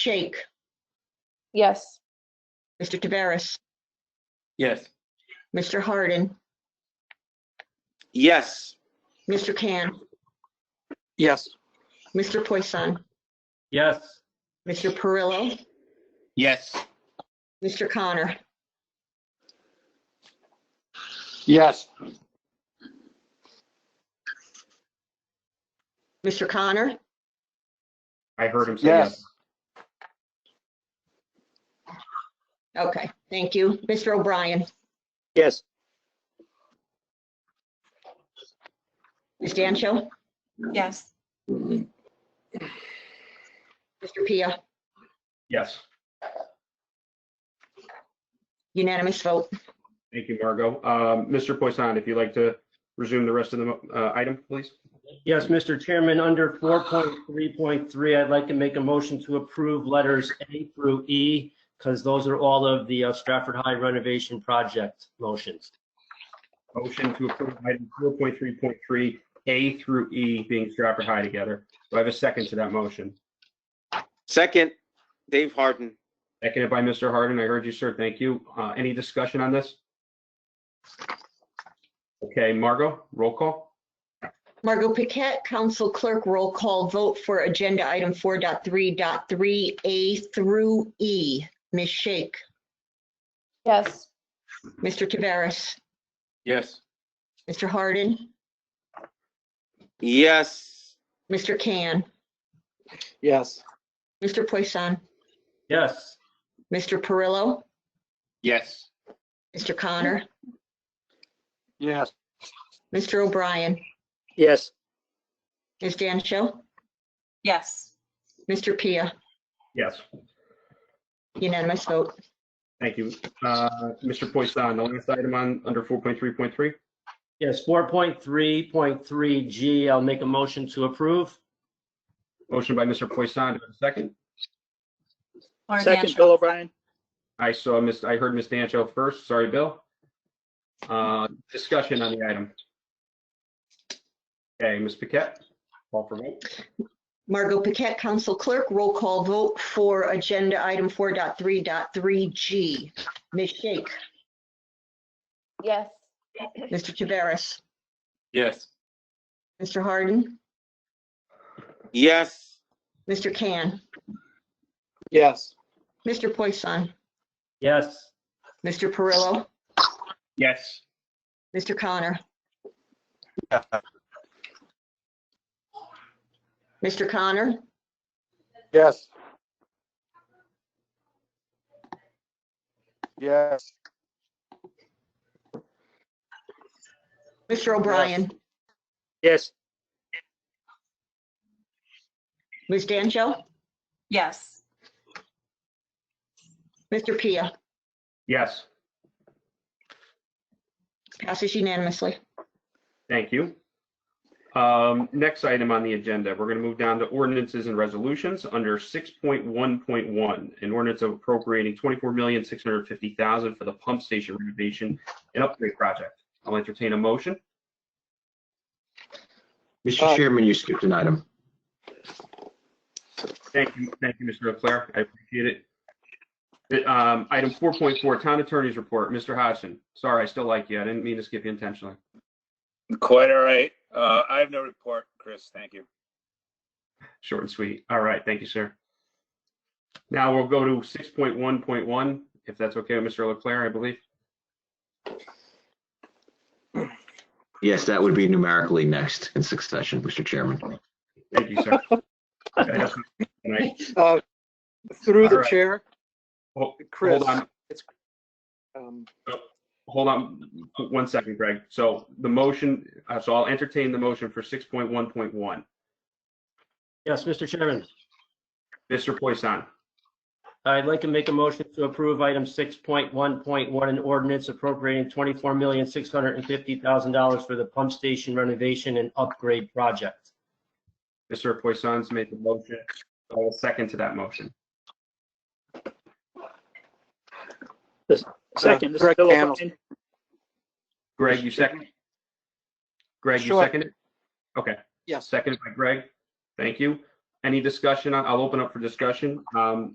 Shake, Yes. Mr. Taveras, Yes. Mr. Hardin, Yes. Mr. Can, Yes. Mr. Poisson, Yes. Mr. Perillo, Yes. Mr. Connor, Yes. Mr. Connor, I heard him say Yes. yes. okay, thank you. Mr. O'Brien, Yes. Ms. Dancho, Yes. Mr. Pia, Yes. unanimous vote. Thank you, Margot. Um, Mr. Poisson, if you'd like to resume the rest of the mo- uh, item, please. Yes, Mr. Chairman, under 4.3.3, I'd like to make a motion to approve letters A through E, because those are all of the uh, Stratford High renovation project motions. Motion to approve item 4.3.3, A through E being Stratford High together. Do I have a second to that motion? Second, Dave Harden. Seconded by Mr. Hardin. I heard you, sir. Thank you. Uh, Any discussion on this? Okay, Margot, roll call? Margot Paquette, Council Clerk, roll call vote for Agenda Item 4.3.3A through E. Ms. Shake, Yes. Mr. Taveras, Yes. Mr. Hardin, Yes. Mr. Can, Yes. Mr. Poisson, Yes, Mr. Perillo, Yes. Mr. Connor, Yes. Mr. O'Brien, Yes. Ms. Dancho, Yes. Mr. Pia, Yes. unanimous vote. Thank you. Uh, Mr. Poisson, the last item on, under 4.3.3? yes, 4.3.3G, I'll make a motion to approve. Motion by Mr. Poisson. Do I have a second? Second, Bill O'Brien. I saw Miss, I heard Miss Dancho first. Sorry, Bill. Uh, Discussion on the item. Okay, Ms. Paquette, call for vote. Margot Paquette, Council Clerk, roll call vote for Agenda Item 4.3.3G. Ms. Shake, Yes. Mr. Taveras, Yes. Mr. Hardin, Yes. Mr. Can, Yes. Mr. Poisson, Yes, Mr. Perillo, Yes. Mr. Connor. Mr. Connor, Yes. Yes. Mr. O'Brien, Yes. Ms. Dancho, Yes. Mr. Pia, Yes, passes unanimously. thank you. Um, Next item on the agenda, we're going to move down to ordinances and resolutions under 6.1.1. An ordinance of appropriating $24,650,000 for the pump station renovation and upgrade project. I'll entertain a motion. Mr. Uh, Chairman, you skipped an item. Thank you, thank you, Mr. Leclerc. I appreciate it. Um, Item 4.4, Town Attorney's Report. Mr. Hodgson, sorry, I still like you. I didn't mean to skip you intentionally. Quite all right. Uh, I have no report, Chris. Thank you. Short and sweet. All right, thank you, sir. Now we'll go to 6.1.1, if that's okay with Mr. Leclerc, I believe. Yes, that would be numerically next in succession, Mr. Chairman. Thank you, sir. And I- Uh, Through All the right. chair, ho- Chris. Hold on, um, hold on one second, Greg. So the motion, uh, so I'll entertain the motion for 6.1.1. yes, Mr. Chairman, Mr. Poisson, I'd like to make a motion to approve item 6.1.1, an ordinance appropriating $24,650,000 for the pump station renovation and upgrade project. Mr. Poisson's made the motion. I'll second to that motion. Second, this is Greg Bill Campbell. O'Brien. Greg, you second? Greg, you Sure. second it? Okay, Yes. seconded by Greg. Thank you. Any discussion? on- I'll open up for discussion. Um,